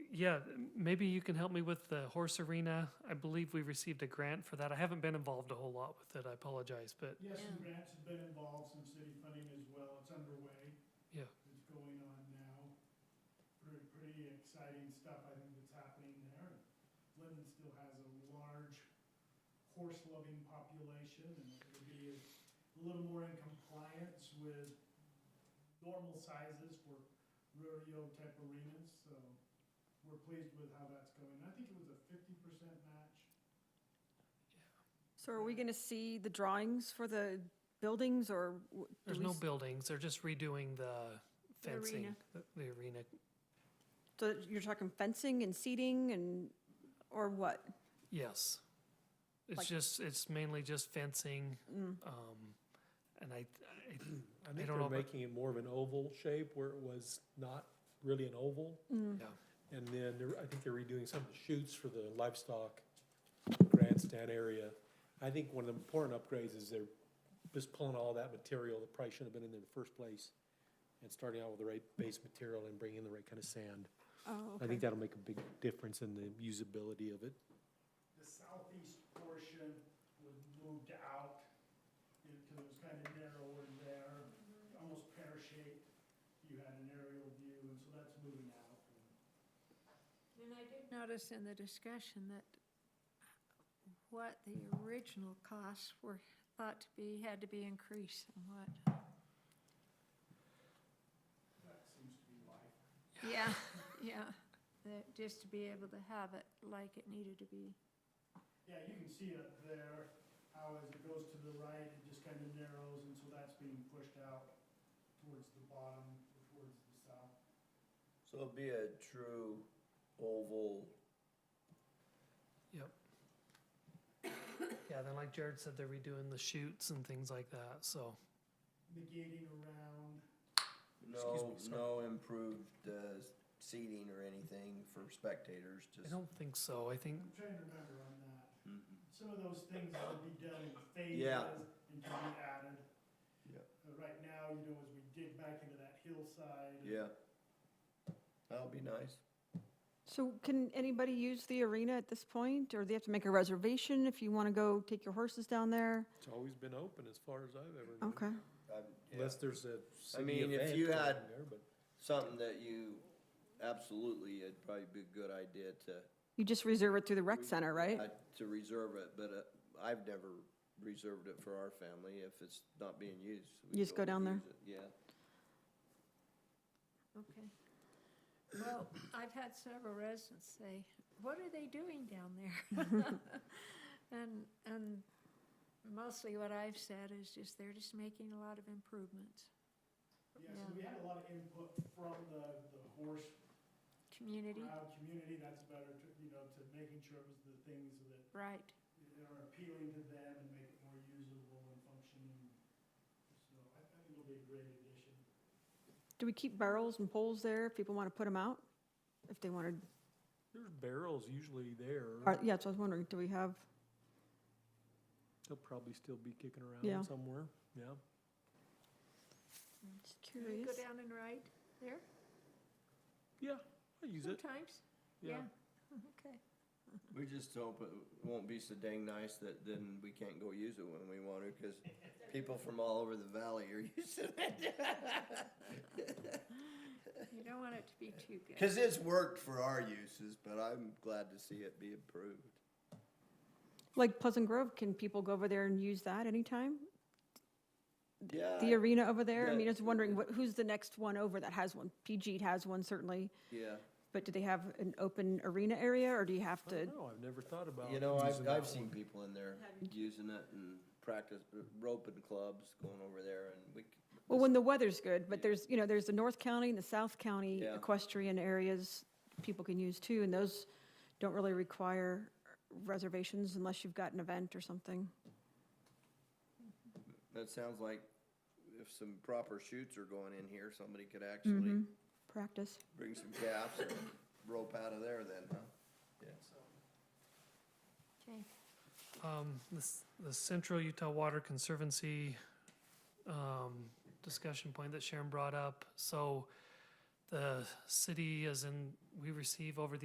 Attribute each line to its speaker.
Speaker 1: yeah, maybe you can help me with the horse arena. I believe we received a grant for that. I haven't been involved a whole lot with it. I apologize, but
Speaker 2: Yes, some
Speaker 3: Yeah.
Speaker 2: grants have been involved, some city funding as well, it's underway.
Speaker 1: Yeah.
Speaker 2: It's going on now, pretty, pretty exciting stuff, I think that's happening there. Linden still has a large horse-loving population, and it'll be a little more in compliance with normal sizes for rodeo-type arenas, so we're pleased with how that's going. I think it was a fifty percent match.
Speaker 4: So are we going to see the drawings for the buildings or? w- do
Speaker 1: there's
Speaker 4: we
Speaker 1: no
Speaker 4: s-
Speaker 1: buildings. They're just redoing the
Speaker 3: The arena.
Speaker 1: fencing, the- the arena.
Speaker 4: So you're talking fencing and seating and, or what?
Speaker 1: Yes. It's
Speaker 4: Like-
Speaker 1: just, it's mainly just fencing.
Speaker 4: Mm.
Speaker 1: Um, and I, I
Speaker 5: I think
Speaker 1: don't know,
Speaker 5: they're
Speaker 1: but-
Speaker 5: making it more of an oval shape where it was not really an oval.
Speaker 4: Mm.
Speaker 1: Yeah.
Speaker 5: And then they're, I think they're redoing some of the chutes for the livestock grandstand area. I think one of the important upgrades is they're just pulling all that material that probably shouldn't have been in there in the first place and starting out with the right base material and bringing in the right kind of sand.
Speaker 4: Oh,
Speaker 5: I
Speaker 4: okay.
Speaker 5: think that'll make a big difference in the usability of it.
Speaker 2: the southeast portion was moved out, because it was kind of narrower there,
Speaker 3: Mm-hmm.
Speaker 2: almost pear-shaped. You had an aerial view, and so that's moving out.
Speaker 3: And I did notice in the discussion that what the original costs were thought to be, had to be increased somewhat.
Speaker 2: That seems to be life.
Speaker 3: Yeah, yeah, that, just to be able to have it like it needed to be.
Speaker 2: Yeah, you can see up there, how as it goes to the right, it just kind of narrows, and so that's being pushed out towards the bottom, towards the south.
Speaker 6: So it'll be a true oval.
Speaker 1: yeah, then like Jared said, they're redoing the shoots and things like that. So
Speaker 2: The gating around,
Speaker 6: No,
Speaker 5: Excuse me,
Speaker 6: no improved uh, seating or anything for spectators,
Speaker 1: I
Speaker 6: just.
Speaker 1: don't think so. I think,
Speaker 2: I'm trying to remember on that.
Speaker 6: Mhm.
Speaker 2: Some of those things will be done in phases
Speaker 6: Yeah.
Speaker 2: and can be added.
Speaker 6: Yep.
Speaker 2: Uh, Right now, you know, as we dig back into that hillside.
Speaker 6: Yeah. That'll be nice.
Speaker 4: So can anybody use the arena at this point? Or do they have to make a reservation if you want to go take your horses down there?
Speaker 5: It's always been open as far as I've ever known.
Speaker 4: Okay.
Speaker 6: I'm- yeah.
Speaker 5: Unless there's a city
Speaker 6: mean, if
Speaker 5: event
Speaker 6: you
Speaker 5: going
Speaker 6: had-
Speaker 5: there, but-
Speaker 6: Something that you, absolutely, it'd probably be a good idea to.
Speaker 4: You just reserve it through the rec center, right?
Speaker 6: uh, To reserve it, but uh, I've never reserved it for our family if it's not being used. we
Speaker 4: You just go down there?
Speaker 6: use it, Yeah.
Speaker 3: Okay. Well, I've had several residents say, what are they doing down there? And, and mostly what I've said is just they're just making a lot of improvements.
Speaker 2: Yeah, so we had a lot of input from the, the horse
Speaker 3: Community,
Speaker 2: crowd community, that's better to, you know, to making sure it was the things that
Speaker 3: right.
Speaker 2: are appealing to them and make it more usable and functioning. So I I think it'll be a great addition.
Speaker 4: Do we keep barrels and poles there if people want to put them out? If they wanted,
Speaker 5: There's barrels usually
Speaker 4: or-
Speaker 5: there.
Speaker 4: yeah, so I was wondering, do we have,
Speaker 5: They'll probably still be kicking
Speaker 4: Yeah.
Speaker 5: around somewhere, yeah.
Speaker 4: just
Speaker 3: Do we Go
Speaker 4: curious?
Speaker 3: down and ride there
Speaker 5: Yeah, I use it,
Speaker 3: sometimes?
Speaker 5: yeah.
Speaker 3: Okay.
Speaker 6: We just hope it won't be so dang nice that then we can't go use it when we want to, because people from all over the valley are using it.
Speaker 3: You don't want it to be too good.
Speaker 6: Because it's worked for our uses, but I'm glad to see it be improved.
Speaker 4: Like Pleasant Grove, can people go over there and use that anytime?
Speaker 6: Yeah,
Speaker 4: The arena over there? I
Speaker 6: Yeah.
Speaker 4: mean, I was wondering, what, who's the next one over that has one? PG has one certainly,
Speaker 6: yeah.
Speaker 4: but do they have an open arena area or do you have
Speaker 5: I
Speaker 4: to?
Speaker 5: don't know, I've never thought about.
Speaker 6: You know,
Speaker 5: using
Speaker 6: I've,
Speaker 5: that
Speaker 6: I've
Speaker 5: one.
Speaker 6: seen people in there using it and practice, uh, roping clubs, going over there and we. c-
Speaker 4: Well, when the weather's good, but
Speaker 6: Yeah.
Speaker 4: there's, you know, there's the North County and the South County
Speaker 6: Yeah.
Speaker 4: equestrian areas people can use too, and those don't really require reservations unless you've got an event or something.
Speaker 6: That sounds like if some proper shoots are going in here, somebody could
Speaker 4: Mm-hmm.
Speaker 6: actually
Speaker 4: Practice.
Speaker 6: bring some calves and rope out of there then, huh?
Speaker 3: Okay.
Speaker 1: um, this, the Central Utah Water Conservancy, um, discussion point that Sharon brought up. So the city is in, we receive over the